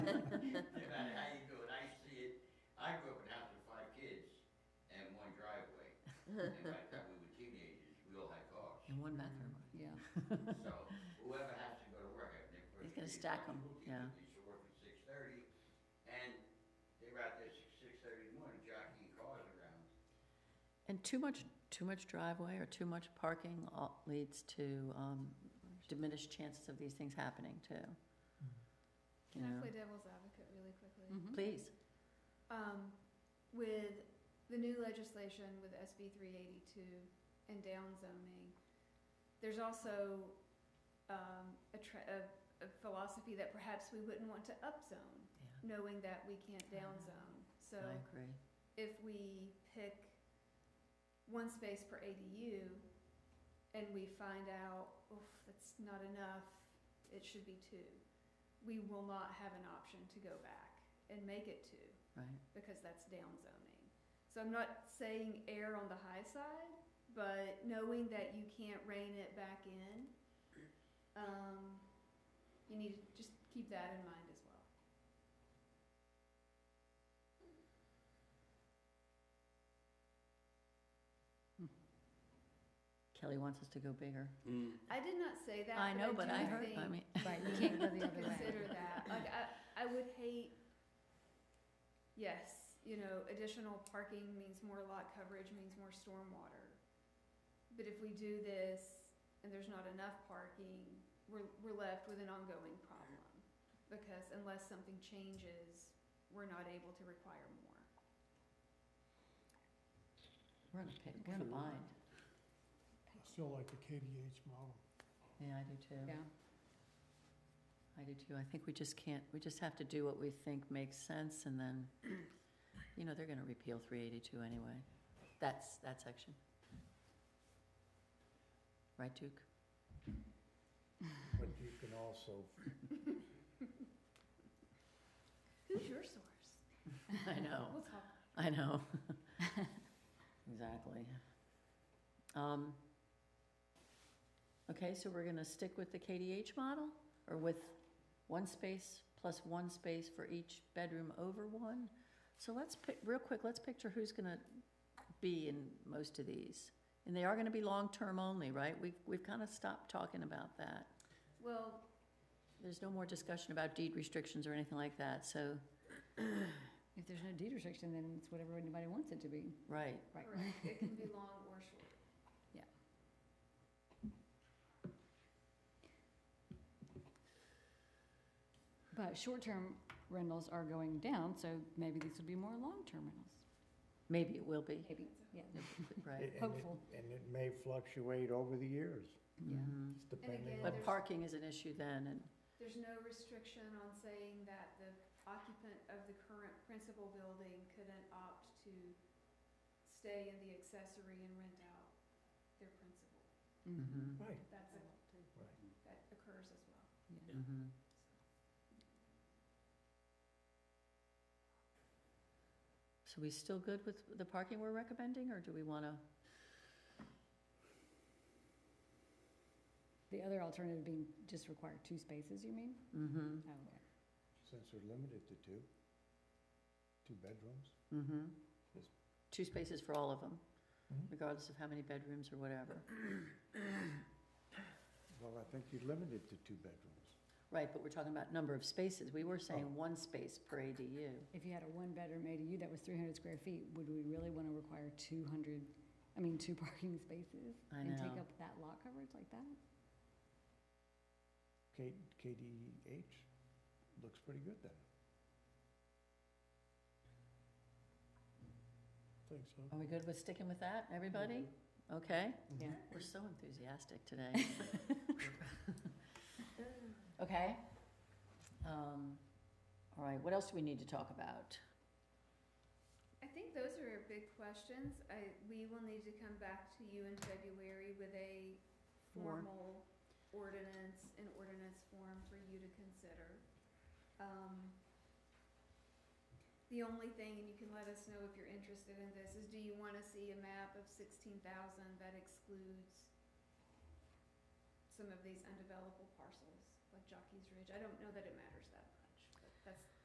Mm, So whoever has to go to work, if they're. He's gonna stack 'em, yeah. You should work at six thirty, and they're out there six, six thirty in the morning jockeying cars around. And too much, too much driveway or too much parking all- leads to um, diminished chances of these things happening too. Mm. You Can I know? play devil's advocate really quickly? Please, Um, with the new legislation with SB three eighty-two and downzoning, there's also, um, a tra- a, a philosophy that perhaps we wouldn't want to upzone, yeah, knowing that we can't Ah, downzone. So I agree. if we pick one space per ADU and we find out, oof, that's not enough, it should be two, we will not have an option to go back and make it two Right, because that's downzoning. So I'm not saying err on the high side, but knowing that you can't rein it back in, um, you need to just keep that in mind as well. Kelly wants us to go bigger. I did not say that. I know, but I do heard, I think mean, Right, you can't go the other way. consider that. Like, I, I would hate, yes, you know, additional parking means more lot coverage, means more stormwater. But if we do this and there's not enough parking, we're, we're left with an ongoing problem. Because unless something changes, we're not able to require more. we're in a, pit- we're in a True. bind. I still like the KDH model. Yeah, I do too. Yeah, I do too. I think we just can't, we just have to do what we think makes sense and then, you know, they're gonna repeal three eighty-two anyway. That's, that section. Right, Duke? But you can also, Who's your source? I know. We'll talk. I know. Exactly. Um, okay, so we're gonna stick with the KDH model, or with one space plus one space for each bedroom over one? So let's pick, real quick, let's picture who's gonna be in most of these. And they are gonna be long-term only, right? We've, we've kinda stopped talking about that. Well, There's no more discussion about deed restrictions or anything like that, so, if there's no deed restriction, then it's whatever anybody wants it to be, right. right? correct, it can be long or short. But short-term rentals are going down, so maybe these will be more long-term rentals, Maybe it will be, maybe, yeah, right? and it, Hopeful. and it may fluctuate over the years, Yeah. Mhm. just depending on. again, But parking is an issue then, and, There's no restriction on saying that the occupant of the current principal building couldn't opt to stay in the accessory and rent out their principal. Mhm. mhm, Right, That's a, that occurs as well. Yeah. mhm. So we still good with the parking we're recommending, or do we wanna, The other alternative being just require two spaces, you mean? mm-hmm, Oh, okay. since they're limited to two, two bedrooms. mm-hmm. Yes. Two spaces for all of them, Mhm. regardless of how many bedrooms or whatever. Well, I think you're limited to two bedrooms. Right, but we're talking about number of spaces. We were saying Oh. one space per ADU. If you had a one-bedroom ADU that was three hundred square feet, would we really want to require two hundred, I mean, two parking spaces? I And take know. up that lot coverage like that? K, KDH looks pretty good then. Think so. Are we good with sticking with that, everybody? Okay? Yeah. We're so enthusiastic today. Okay. Um, all right, what else do we need to talk about? I think those are big questions. I, we will need to come back to you in February with a Form. formal ordinance, an ordinance form for you to consider. Um, the only thing, and you can let us know if you're interested in this, is do you wanna see a map of sixteen thousand that excludes some of these undevelopable parcels, like Jockey's Ridge? I don't know that it matters that